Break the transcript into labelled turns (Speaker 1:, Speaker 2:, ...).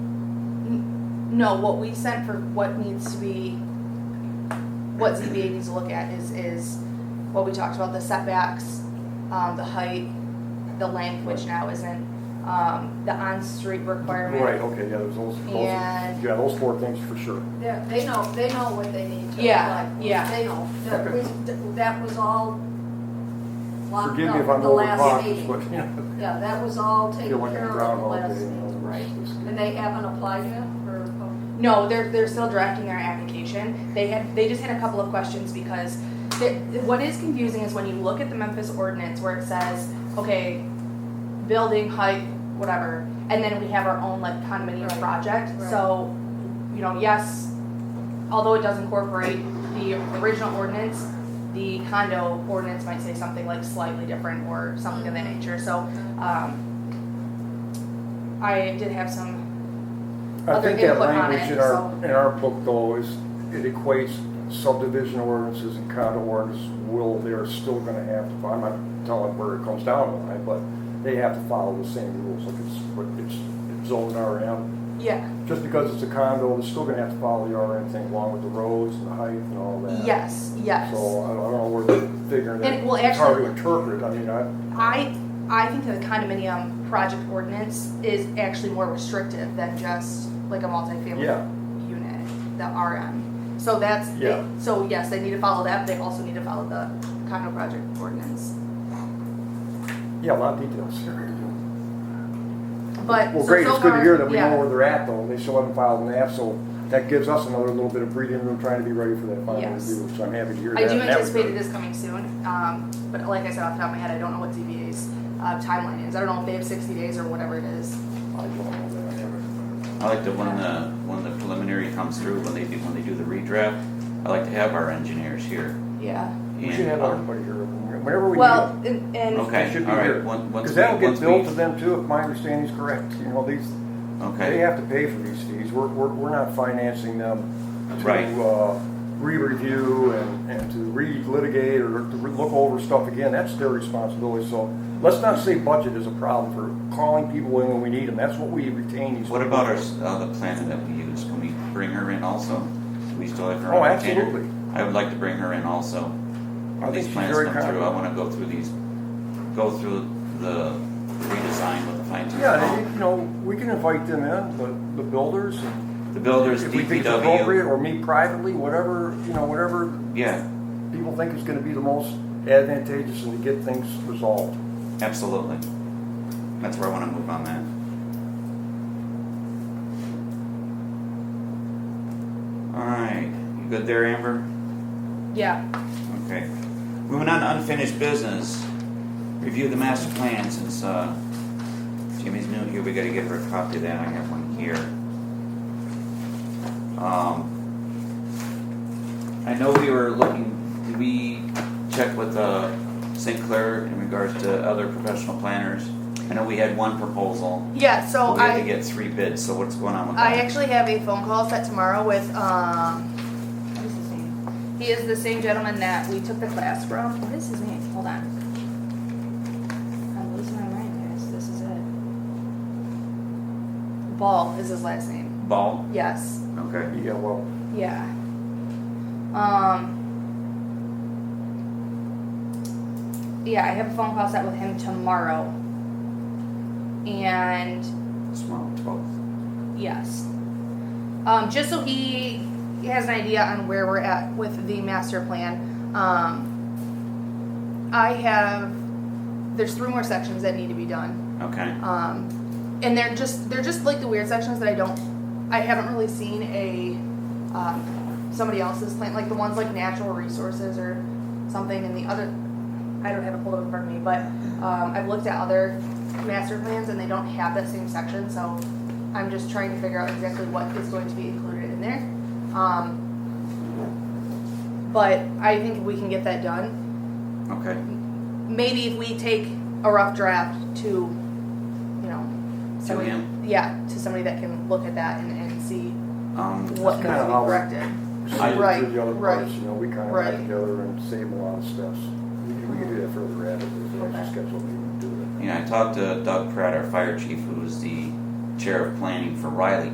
Speaker 1: No, what we sent for what needs to be, what ZBA needs to look at is, is what we talked about, the setbacks, um, the height, the length, which now isn't, um, the on-street requirement.
Speaker 2: Right, okay, yeah, there's those, those,
Speaker 1: And-
Speaker 2: yeah, those four things for sure.
Speaker 3: They're- They know, they know what they need to.
Speaker 1: Yeah,
Speaker 3: like,
Speaker 1: yeah.
Speaker 3: They know, that
Speaker 2: Okay.
Speaker 3: was, that was all locked
Speaker 2: Forgive me if
Speaker 3: up
Speaker 2: I'm
Speaker 3: the
Speaker 2: over
Speaker 3: last
Speaker 2: cautious, but,
Speaker 3: meeting.
Speaker 2: you know,
Speaker 3: Yeah, that was all
Speaker 2: you're
Speaker 3: taken
Speaker 2: looking at
Speaker 3: care of the
Speaker 2: Groundhog
Speaker 3: last
Speaker 2: Day.
Speaker 3: meeting.
Speaker 2: and all
Speaker 3: Right.
Speaker 2: this.
Speaker 3: And they haven't applied yet, or, oh,
Speaker 1: No, they're, they're still drafting their application. They had, they just had a couple of questions because the- what is confusing is when you look at the Memphis ordinance where it says, okay, building height, whatever, and then we have our own like condominium
Speaker 3: Right,
Speaker 1: project.
Speaker 3: right.
Speaker 1: So, you know, yes, although it does incorporate the original ordinance, the condo ordinance might say something like slightly different or something of that
Speaker 3: Mm-hmm.
Speaker 1: nature. So, um, I did have some
Speaker 2: I
Speaker 1: other
Speaker 2: think that
Speaker 1: input on
Speaker 2: language
Speaker 1: it,
Speaker 2: in
Speaker 1: so-
Speaker 2: our, in our book though is, it equates subdivision ordinances and condo ordinances will, they're still gonna have to, I'm not telling where it comes down to, right, but they have to follow the same rules, like it's, but it's, it's zoned RM.
Speaker 1: Yeah.
Speaker 2: Just because it's a condo, they're still gonna have to follow the RM thing along with the roads and the height and all that.
Speaker 1: Yes, yes.
Speaker 2: So I don't, I don't know where they're figuring that,
Speaker 1: And, well,
Speaker 2: it's hard to
Speaker 1: actually-
Speaker 2: interpret, I mean, I,
Speaker 1: I I think that the condominium project ordinance is actually more restrictive than just like a multifamily
Speaker 2: Yeah.
Speaker 1: unit, the RM. So that's they-
Speaker 2: Yeah.
Speaker 1: so yes, they need to follow that. They also need to follow the condo project ordinance.
Speaker 2: yeah, a lot of details here.
Speaker 1: But
Speaker 2: Well,
Speaker 1: so,
Speaker 2: great,
Speaker 1: so
Speaker 2: it's good to
Speaker 1: far-
Speaker 2: hew that we
Speaker 1: yeah.
Speaker 2: know where they're at though, and they still haven't filed an app, so that gives us another little bit of breathing room trying to be ready for that final
Speaker 1: Yes.
Speaker 2: review, so I'm happy to hear that.
Speaker 1: I do
Speaker 2: and that was
Speaker 1: anticipate it
Speaker 2: good.
Speaker 1: is coming soon, um, but like I said off the top of my head, I don't know what ZBA's uh, timeline is. I don't know if they have 60 days or whatever it is.
Speaker 2: I don't know that, I never-
Speaker 4: I like that when the, when the preliminary comes through, when they do, when they do the redraft, I like to have our engineers here.
Speaker 1: Yeah.
Speaker 2: We should have
Speaker 4: And, um,
Speaker 2: everybody here, uh, whenever we need
Speaker 1: Well,
Speaker 2: them,
Speaker 1: and, and
Speaker 4: Okay,
Speaker 2: they should be
Speaker 4: all right,
Speaker 2: here.
Speaker 4: one- once
Speaker 2: Because
Speaker 4: we-
Speaker 2: that'll get
Speaker 4: once
Speaker 2: billed
Speaker 4: we-
Speaker 2: to them too, if my understanding is correct, you know, these, they
Speaker 4: Okay,
Speaker 2: have to pay for these fees, we're, we're, we're not financing them
Speaker 4: Right.
Speaker 2: to, uh, re-review and, and to re-litigate or to re- look over stuff again, that's their responsibility, so let's not say budget is a problem for calling people in when we need them, that's what we retain these.
Speaker 4: what
Speaker 2: people
Speaker 4: about our,
Speaker 2: for.
Speaker 4: s- uh, the planner that we use, can we bring her in also? Do we still have her
Speaker 2: Oh,
Speaker 4: on retainer?
Speaker 2: absolutely.
Speaker 4: I would like to bring her in also. When
Speaker 2: I think
Speaker 4: These
Speaker 2: she's
Speaker 4: plans
Speaker 2: very
Speaker 4: come through, I
Speaker 2: competent.
Speaker 4: wanna go through these, go through the redesign with the fine tooth
Speaker 2: Yeah, and,
Speaker 4: comb.
Speaker 2: you know, we can invite them in, the, the builders, and
Speaker 4: The builders,
Speaker 2: if we think it's appropriate,
Speaker 4: DPW,
Speaker 2: or me privately, whatever, you know, whatever
Speaker 4: yeah,
Speaker 2: people think is gonna be the most advantageous and to get things resolved.
Speaker 4: absolutely. That's where I wanna move on that. Alright, you good there, Amber?
Speaker 1: yeah.
Speaker 4: Okay. Moving on to unfinished business. Review the master plan since uh, Jimmy's new here. We got to give her a copy of that. I have one here. Um, I know we were looking. Did we check with uh, St. Clair in regards to other professional planners? I know we had one proposal.
Speaker 1: Yeah, so
Speaker 4: but we
Speaker 1: I.
Speaker 4: had to get three bids. So what's going on with
Speaker 1: I
Speaker 4: that?
Speaker 1: actually have a phone call set tomorrow with, um, what is his name? He is the same gentleman that we took the class from. What is his name? Hold on. I'm losing my mind, guys. This is it. Ball is his last name.
Speaker 4: Ball.
Speaker 1: Yes.
Speaker 4: Okay.
Speaker 2: Yeah, well,
Speaker 1: Yeah. Um. Yeah, I have a phone call set with him tomorrow. And
Speaker 4: Tomorrow, twelve.
Speaker 1: Yes. Um, just so he has an idea on where we're at with the master plan. Um, I have, there's three more sections that need to be done.
Speaker 4: Okay.
Speaker 1: Um, and they're just, they're just like the weird sections that I don't, I haven't really seen a, um, somebody else's plan, like the ones like natural resources or something and the other, I don't have it pulled up in front of me, but, um, I've looked at other master plans and they don't have that same section, so I'm just trying to figure out exactly what is going to be included in there. Um, but I think we can get that done.
Speaker 4: Okay.
Speaker 1: Maybe if we take a rough draft to, you know, somebody,
Speaker 4: him?
Speaker 1: yeah, to somebody that can look at that and, and see
Speaker 4: Um,
Speaker 1: what needs to
Speaker 2: That's kinda how-
Speaker 1: be corrected.
Speaker 2: I
Speaker 1: Right,
Speaker 2: do the other
Speaker 1: right,
Speaker 2: parts, you know, we kind of
Speaker 1: right.
Speaker 2: got together and save a lot of steps. We can, we can do that further rapidly, if we
Speaker 1: Okay.
Speaker 2: actually schedule a meeting to do it.
Speaker 4: You know, I talked to Doug Pratt, our fire chief, who was the chair of planning for Riley